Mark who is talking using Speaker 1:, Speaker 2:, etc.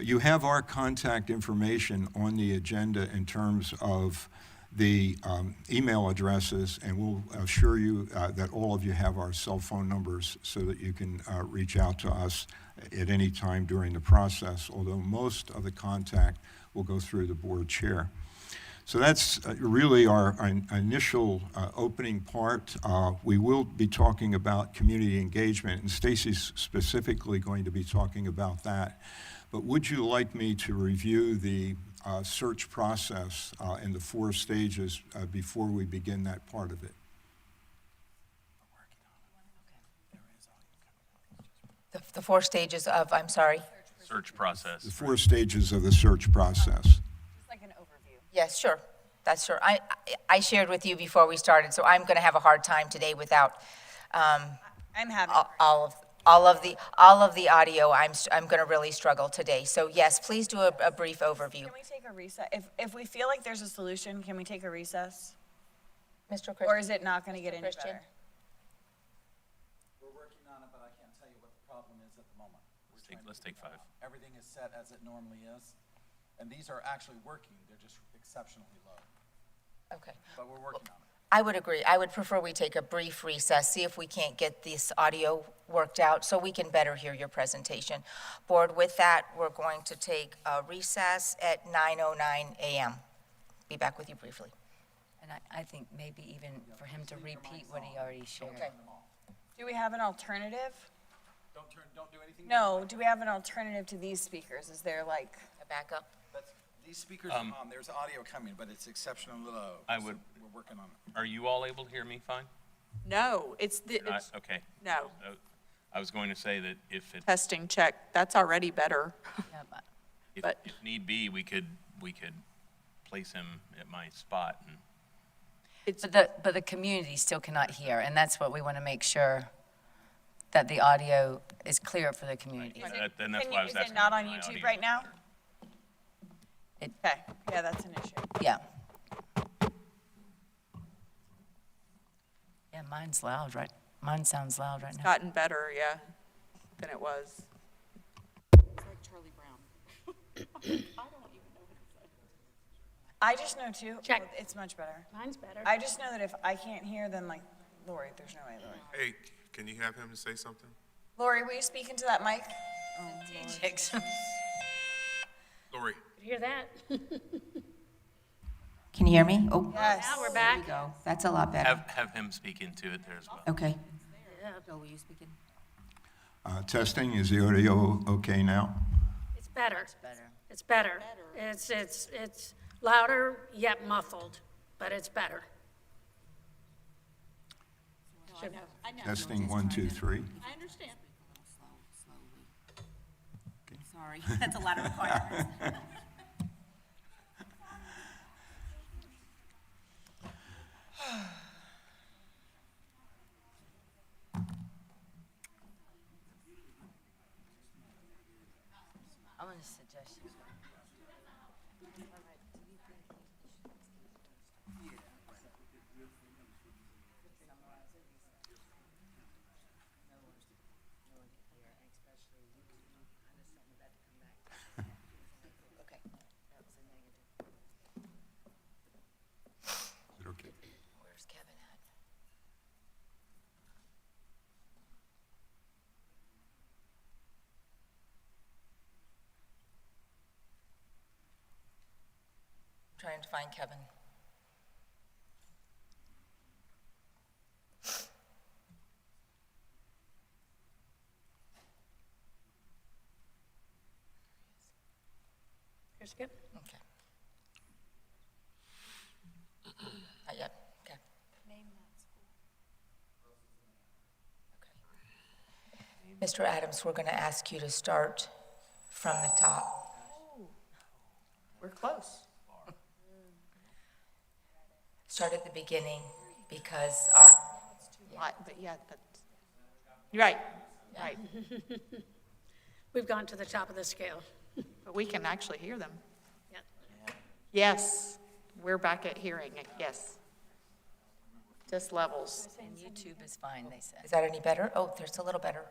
Speaker 1: You have our contact information on the agenda in terms of the um, email addresses, and we'll assure you uh, that all of you have our cell phone numbers so that you can uh, reach out to us at any time during the process, although most of the contact will go through the board chair. So that's uh, really our our initial uh, opening part. Uh, We will be talking about community engagement, and Stacy's specifically going to be talking about that. But would you like me to review the uh, search process uh, and the four stages uh, before we begin that part of it?
Speaker 2: The, the four stages of, I'm sorry.
Speaker 3: search
Speaker 1: The
Speaker 3: process.
Speaker 1: four stages of the search process.
Speaker 4: Like an overview.
Speaker 2: Yes, sure. That's sure. I, I- I shared with you before we started, so I'm going to have a hard time today without um,
Speaker 4: I'm happy.
Speaker 2: all all of, all of the, all of the audio. I'm, s- I'm going to really struggle today. So yes, please do a, a brief overview.
Speaker 4: Can we take a recess? If, if we feel like there's a solution, can we take a recess?
Speaker 2: Mr.
Speaker 4: Or
Speaker 2: Christian,
Speaker 4: is it not going to get any
Speaker 2: Christian?
Speaker 4: better?
Speaker 5: We're working on it, but I can't tell you what the problem is at the moment. We're
Speaker 3: Let's take-
Speaker 5: trying to
Speaker 3: let's
Speaker 5: figure
Speaker 3: take
Speaker 5: that out. Everything is set as it normally is, and these are actually working, they're just exceptionally low,
Speaker 2: okay.
Speaker 5: but we're working on it.
Speaker 2: I would agree. I would prefer we take a brief recess, see if we can't get this audio worked out so we can better hear your presentation. Board, with that, we're going to take a recess at 9:09 a.m. Be back with you briefly.
Speaker 6: And I, I think maybe even for him to repeat what he already shared.
Speaker 2: Okay.
Speaker 4: Do we have an alternative?
Speaker 5: Don't turn, don't do anything.
Speaker 4: No, do we have an alternative to these speakers? Is there like,
Speaker 2: Back up.
Speaker 5: That's- These speakers are on, there's audio coming, but it's exceptionally low.
Speaker 3: Um, I
Speaker 5: so
Speaker 3: would-
Speaker 5: We're working on it.
Speaker 3: Are you all able to hear me fine?
Speaker 7: No, it's the,
Speaker 3: You're not?
Speaker 7: it's
Speaker 3: Okay.
Speaker 7: No.
Speaker 3: Uh, I was going to say that if it,
Speaker 7: testing check. That's already better.
Speaker 6: Yeah, but-
Speaker 3: if
Speaker 7: but-
Speaker 3: if need be, we could, we could place him at my spot. and-
Speaker 7: It's,
Speaker 6: But the, but the community still cannot hear, and that's what we want to make sure, that the audio is clear for the community.
Speaker 4: is
Speaker 3: that-
Speaker 4: it,
Speaker 3: Then that's
Speaker 4: can
Speaker 3: why I
Speaker 4: you-
Speaker 3: was
Speaker 4: is
Speaker 3: asking.
Speaker 4: it not
Speaker 3: if
Speaker 4: on
Speaker 3: my
Speaker 4: YouTube
Speaker 3: audio
Speaker 4: right
Speaker 3: was
Speaker 4: now?
Speaker 3: better.
Speaker 4: Okay, yeah, that's an issue.
Speaker 6: Yeah. Yeah, mine's loud, right? Mine sounds loud right now.
Speaker 7: gotten better, yeah, than it was.
Speaker 4: I just know too.
Speaker 8: Check.
Speaker 4: It's much better.
Speaker 8: Mine's better.
Speaker 4: I just know that if I can't hear, then like, Lori, there's no way, Lori.
Speaker 9: Hey, can you have him to say something?
Speaker 4: Lori, will you speak into that mic?
Speaker 9: Lori?
Speaker 8: Hear that?
Speaker 2: Can you hear me? Oh,
Speaker 4: Yes.
Speaker 8: Now we're back.
Speaker 2: go. That's a lot better.
Speaker 3: Have, have him speak into it there as well.
Speaker 2: Okay.
Speaker 1: Uh, Testing, is the audio okay now?
Speaker 8: It's better. It's better. It's, it's, it's louder yet muffled, but it's better.
Speaker 1: Testing, one, two, three.
Speaker 10: I understand. Sorry, that's a lot of requirements.
Speaker 6: I'm going to suggest you.
Speaker 1: Is it okay?
Speaker 2: Where's Kevin at? Trying to find Kevin.
Speaker 8: Here, Skip.
Speaker 2: Okay. Not yet, okay. Name that school. Mr. Adams, we're going to ask you to start from the top.
Speaker 4: We're close.
Speaker 2: Start at the beginning because our,
Speaker 7: Lot, But yeah, that's, you're right, right.
Speaker 8: We've gone to the top of the scale.
Speaker 7: But we can actually hear them.
Speaker 8: Yeah.
Speaker 7: Yes, we're back at hearing it, yes. Just levels.
Speaker 6: And YouTube is fine, they said.
Speaker 2: is that any better? Oh, there's a little better.